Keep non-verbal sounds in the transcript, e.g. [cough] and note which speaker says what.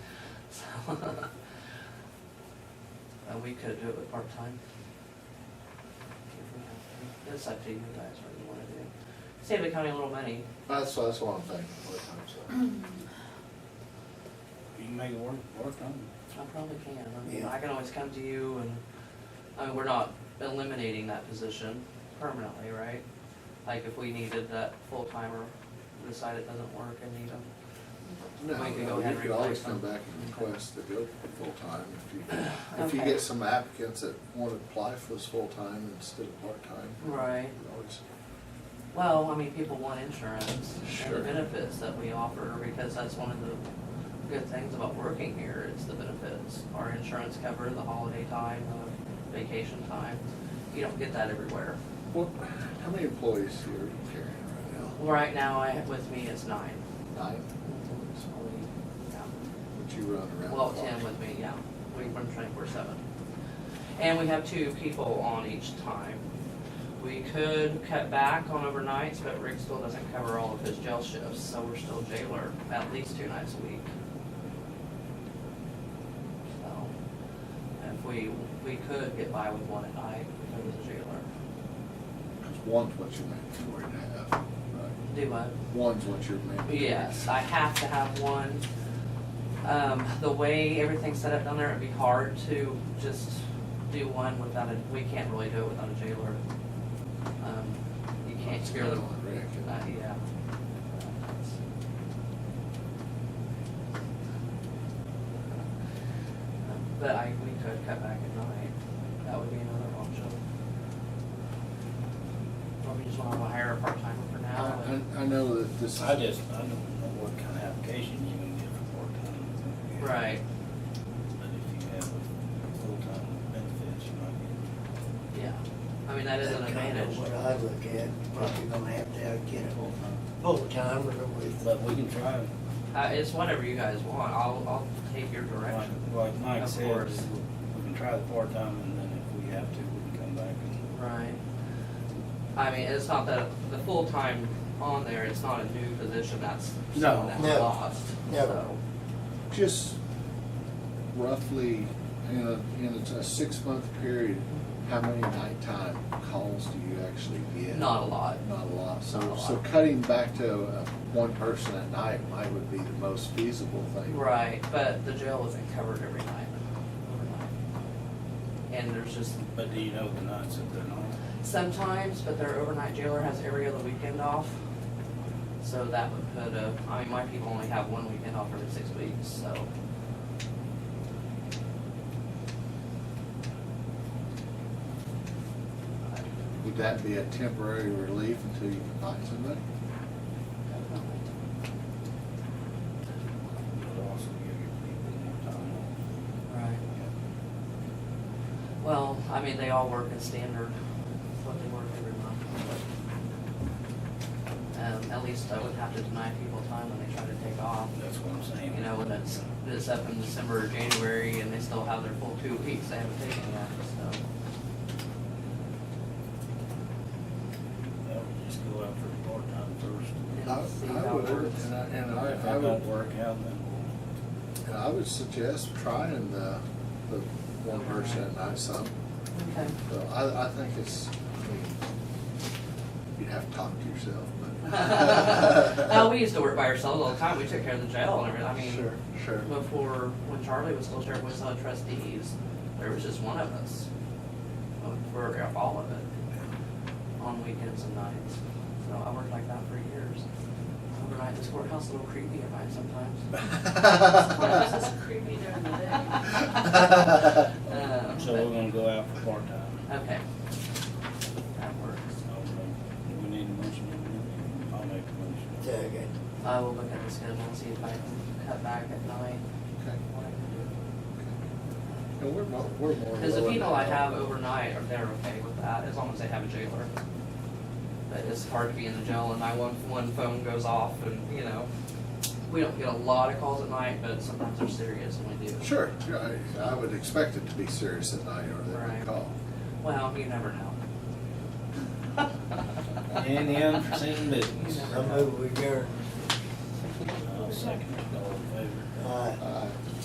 Speaker 1: [laughs] Uh, we could do it with part-time. If we have to. It's up to you guys what you wanna do. Save the county a little money.
Speaker 2: That's, that's what I'm thinking, what time,
Speaker 3: You can make it work, work on it.
Speaker 1: I probably can. I mean,
Speaker 3: Yeah.
Speaker 1: I can always come to you and, I mean, we're not eliminating that position permanently, right? Like if we needed that full timer, decide it doesn't work and need them.
Speaker 2: so.
Speaker 1: We can go
Speaker 2: No,
Speaker 1: ahead
Speaker 2: you
Speaker 1: and
Speaker 2: could always
Speaker 1: replace
Speaker 2: come
Speaker 1: them.
Speaker 2: back and request to go full-time if you, if you
Speaker 1: Okay.
Speaker 2: get some applicants that want to apply for this full-time instead of part-time.
Speaker 1: Right.
Speaker 2: you can always-
Speaker 1: Well, I mean, people want insurance and the
Speaker 2: Sure.
Speaker 1: benefits that we offer, because that's one of the good things about working here is the benefits. Our insurance cover the holiday time, the vacation time. You don't get that everywhere.
Speaker 2: What, how many employees here are you carrying right
Speaker 1: Right now, I, with me is nine.
Speaker 2: now? Nine?
Speaker 1: Only, yeah.
Speaker 2: Would you run around?
Speaker 1: Well,
Speaker 2: the clock?
Speaker 1: ten with me, yeah. We run twenty-four seven. And we have two people on each time. We could cut back on overnights, but Rick still doesn't cover all of his jail shifts, so we're still jailer at least two nights a week. So, if we, we could get by with one at night, because he's a jailer.
Speaker 2: Because one's what you make, four and a half, right?
Speaker 1: Do what?
Speaker 2: One's what you're making.
Speaker 1: Yes, I have to have one. Um, the way everything's set up down there, it'd be hard to just do one without a, we can't really do it without a jailer. Um, you can't
Speaker 2: It's
Speaker 1: scare
Speaker 2: kind
Speaker 1: them.
Speaker 2: of on Rick. isn't
Speaker 1: Uh,
Speaker 2: it?
Speaker 1: yeah. But I, we could cut back at night, that would be another option. Or we just wanna hire a part-timer for now,
Speaker 2: I,
Speaker 1: but-
Speaker 2: I- I know that this is.
Speaker 3: I just, I don't know what kind of application you can get for part-time.
Speaker 1: right,
Speaker 3: But if you have a full-time benefits, you might get.
Speaker 1: yeah. I mean, that is an
Speaker 4: That's kind of
Speaker 1: advantage.
Speaker 4: What I look at, probably gonna have to have get a
Speaker 3: full-time.
Speaker 4: full-time or with,
Speaker 3: But we can try, it.
Speaker 1: Uh, it's whatever you guys want, I'll, I'll take your
Speaker 3: like,
Speaker 1: direction.
Speaker 3: like Mike
Speaker 1: Of
Speaker 3: said,
Speaker 1: course.
Speaker 3: we can try the part-time and then if we have to, we can come back and.
Speaker 1: Right. I mean, it's not that, the full-time on there, it's not a new position, that's someone
Speaker 3: No.
Speaker 1: that's
Speaker 4: No.
Speaker 1: lost,
Speaker 4: No.
Speaker 1: so.
Speaker 2: Just roughly, in a, in a six-month period, how many nighttime calls do you actually get?
Speaker 1: Not a lot,
Speaker 2: Not a lot, so,
Speaker 1: Not a lot.
Speaker 2: so cutting back to uh, one person at night might would be the most feasible thing.
Speaker 1: right, but the jail isn't covered every night, overnight. And there's just
Speaker 3: But do you know the nights that they're not?
Speaker 1: sometimes, but their overnight jailer has every other weekend off. So that would put a, I mean, my people only have one weekend off every six weeks, so.
Speaker 2: Would that be a temporary relief until you can find somebody?
Speaker 3: It'll also give your people more time off.
Speaker 1: Right. Well, I mean, they all work in standard, it's what they work every month. but, Um, at least I wouldn't have to deny people time when they try to take off.
Speaker 3: That's what I'm saying.
Speaker 1: You know, when it's, it's up in December or January and they still have their full two weeks, they haven't taken yet, so.
Speaker 3: That would just go out for part-time first.
Speaker 1: and
Speaker 2: I-
Speaker 1: see how
Speaker 2: I
Speaker 1: it
Speaker 2: would,
Speaker 1: works.
Speaker 2: and I- And
Speaker 3: If
Speaker 2: I, I
Speaker 3: that
Speaker 2: would
Speaker 3: don't work out, then we'll
Speaker 2: And I would suggest trying the, the one person at night some.
Speaker 1: Okay,
Speaker 2: So I, I think it's, I mean, you'd have to talk to yourself, [laughs]
Speaker 1: [laughs]
Speaker 2: but.
Speaker 1: Uh, we used to work by ourselves all the time, we took care of the jail and everything, I mean.
Speaker 2: Sure, sure.
Speaker 1: before, when Charlie was still chairman of the trustees, there was just one of us. uh, For all of it, on weekends and nights. So I worked like that for years. Overnight, this courthouse a little creepy at night sometimes.
Speaker 5: This is creepy during the day.
Speaker 1: Um,
Speaker 3: So we're gonna go out for part-time.
Speaker 1: but- Okay. That works.
Speaker 3: uh, We need a motion. don't we? I'll make a motion.
Speaker 4: second.
Speaker 1: I will look at the schedule and see if I can cut back at night.
Speaker 2: Okay.
Speaker 1: what I can
Speaker 2: And [laughs] we're more, we're more.
Speaker 1: do. Cause the
Speaker 2: willing to
Speaker 1: people I have
Speaker 2: help.
Speaker 1: overnight are, they're okay with that, as long as they have a jailer. But it's hard to be in the jail and my one, one phone goes off and, you know, we don't get a lot of calls at night, but sometimes they're serious and we do.
Speaker 2: Sure, yeah, I, I would expect it to be serious at night or they
Speaker 1: Right.
Speaker 2: would call.
Speaker 1: Well, you never know.
Speaker 3: Any unforeseen business?
Speaker 1: You
Speaker 4: I move we adjourn.
Speaker 3: I'll second it, all in favor?
Speaker 4: Aye.
Speaker 2: Uh,